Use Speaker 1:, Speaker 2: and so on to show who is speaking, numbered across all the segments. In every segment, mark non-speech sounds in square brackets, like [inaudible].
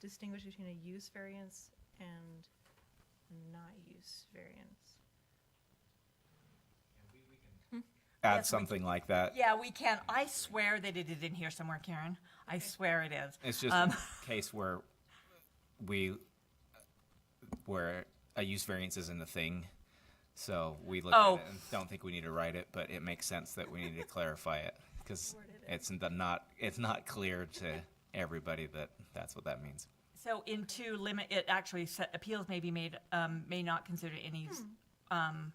Speaker 1: distinguish between a use variance and not use variance.
Speaker 2: Add
Speaker 3: Yes, we-
Speaker 2: something like that.
Speaker 3: Yeah, we can. I swear that it is in here somewhere, Karen. I swear it is.
Speaker 2: It's just
Speaker 3: Um,
Speaker 2: a case where we where a use variance isn't a thing. So we look
Speaker 3: Oh.
Speaker 2: at it and don't think we need to write it, but it makes sense that we need to clarify it because it's the not it's not clear to everybody that that's what that means.
Speaker 3: So in two limit, it actually sa- appeals may be made, um, may not consider any, s- um,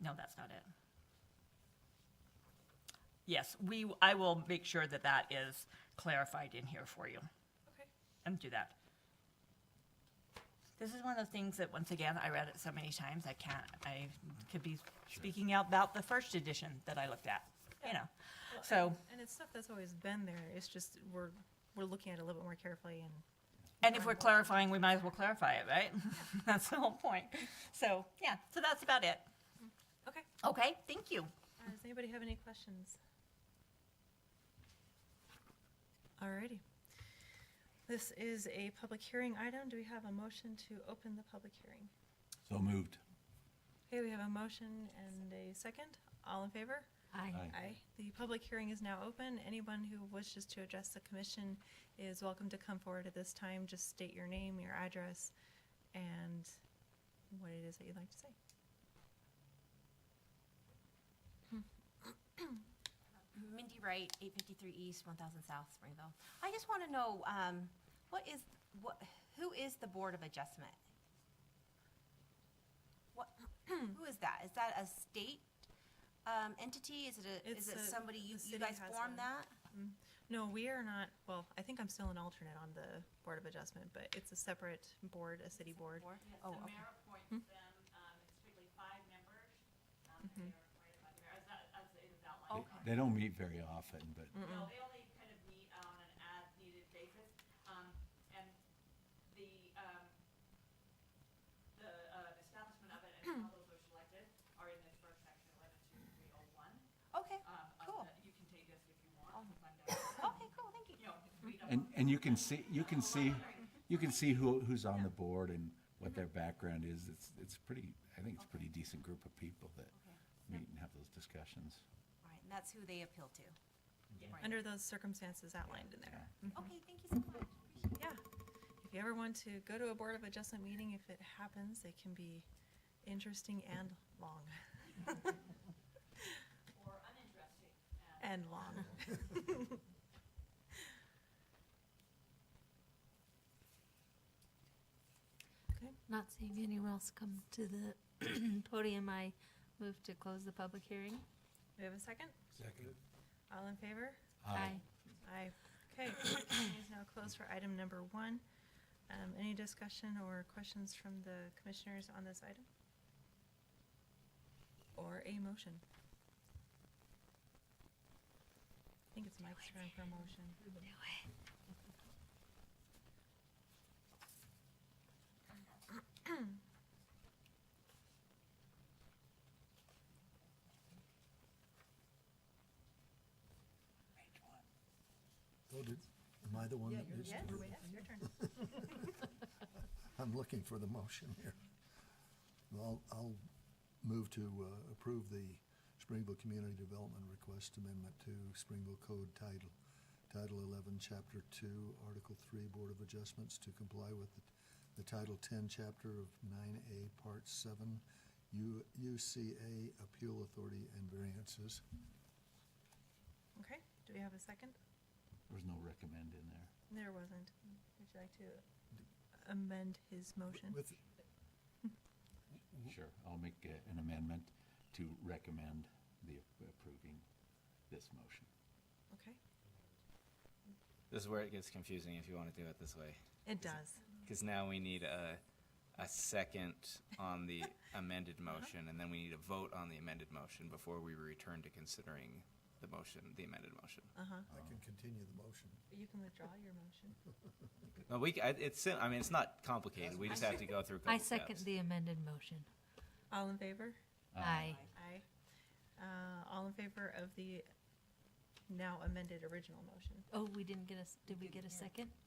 Speaker 3: no, that's not it. Yes, we, I will make sure that that is clarified in here for you
Speaker 1: Okay.
Speaker 3: and do that. This is one of the things that, once again, I read it so many times, I can't, I could be speaking out about the first edition that I looked at, you know, so.
Speaker 1: And it's stuff that's always been there, it's just we're, we're looking at it a little bit more carefully and.
Speaker 3: And if we're clarifying, we might as well clarify it, right? [laughs] That's the whole point. So, yeah, so that's about it.
Speaker 1: Okay.
Speaker 3: Okay, thank you.
Speaker 1: Uh, Does anybody have any questions? Alrighty. This is a public hearing item. Do we have a motion to open the public hearing?
Speaker 4: So moved.
Speaker 1: Okay, we have a motion and a second. All in favor?
Speaker 4: Aye.
Speaker 1: Aye. The public hearing is now open. Anyone who wishes to address the commission is welcome to come forward at this time. Just state your name, your address, and what it is that you'd like to say.
Speaker 5: Mindy Wright, eight fifty-three East, one thousand South, Springville. I just want to know, um, what is, what, who is the Board of Adjustment? What, [clears throat] who is that? Is that a state, um, entity? Is it a, is
Speaker 1: It's
Speaker 5: it
Speaker 1: a-
Speaker 5: somebody, you,
Speaker 1: the
Speaker 5: you
Speaker 1: city
Speaker 5: guys
Speaker 1: has one.
Speaker 5: formed that?
Speaker 1: No, we are not, well, I think I'm still an alternate on the Board of Adjustment, but it's a separate board, a city board.
Speaker 5: Board?
Speaker 6: Yes,
Speaker 5: Oh,
Speaker 6: the
Speaker 5: okay.
Speaker 6: mayor appoints them, um, it's strictly five members, um, and
Speaker 5: Mm-hmm.
Speaker 6: they are appointed by the mayor, as, that- as it is
Speaker 4: They-
Speaker 6: outlined.
Speaker 4: They don't meet very often, but
Speaker 6: No, they only kind of meet on an as-needed basis, um, and the, um, the, uh, establishment of it and how those are selected are in this first section, eleven two three oh one,
Speaker 5: Okay,
Speaker 6: um, of
Speaker 5: Cool.
Speaker 6: the, you can take this if you want,
Speaker 5: Oh.
Speaker 6: and find out,
Speaker 5: okay, cool, thank you.
Speaker 6: you know, if we don't
Speaker 4: and, and you can see you can see you can see who who's on the board and what their background is. It's it's pretty. I think it's a pretty decent group of people that meet and have those discussions.
Speaker 5: Right, and that's who they appeal to? Right.
Speaker 1: Under those circumstances outlined in there.
Speaker 5: Okay, thank you so much. Appreciate it.
Speaker 1: Yeah. If you ever want to go to a Board of Adjustment meeting, if it happens, it can be interesting and long,
Speaker 6: or uninteresting, uh,
Speaker 1: [laughs] and long.
Speaker 7: Not seeing anyone else come to the [clears throat] podium, I move to close the public hearing.
Speaker 1: Do we have a second? Second. All in favor?
Speaker 4: Aye.
Speaker 1: Aye. Okay, public hearing is now closed for item number one. Um, Any discussion or questions from the commissioners on this item? Or a motion? I think it's Mike's turn for a motion.
Speaker 8: Oh, did, am I the one that missed? it?
Speaker 1: your turn.
Speaker 8: I'm looking for the motion here. Well, I'll- I'll move to uh, approve the Springville Community Development Request Amendment to Springville Code Title, Title 11, Chapter 2, Article 3, Board of Adjustments to comply with the- the Title 10, Chapter of 9A, Part 7, U- UCA Appeal Authority and Variances.
Speaker 1: Okay, do we have a second?
Speaker 4: There's no recommend in there.
Speaker 1: There wasn't. Would you like to amend his motion?
Speaker 8: With,
Speaker 4: Sure, I'll make a- an amendment to recommend the approving this motion.
Speaker 1: Okay,
Speaker 2: This is where it gets confusing if you want to do it this way.
Speaker 1: it does.
Speaker 2: Because now we need a, a second on
Speaker 7: [laughs]
Speaker 2: the
Speaker 7: Uh-huh.
Speaker 2: amended motion, and then we need a vote on the amended motion before we return to considering the motion, the amended motion.
Speaker 1: Uh-huh.
Speaker 8: I can continue the motion.
Speaker 1: You can withdraw your motion.
Speaker 2: No, we, c- I- it's, sim- I mean, it's not complicated, we just have to go through a couple
Speaker 7: I
Speaker 2: steps.
Speaker 7: second the amended motion.
Speaker 1: All in favor?
Speaker 7: Aye.
Speaker 1: Aye. Uh, All in favor of the now amended original motion?
Speaker 7: Oh, we didn't get a, s- did we get a second?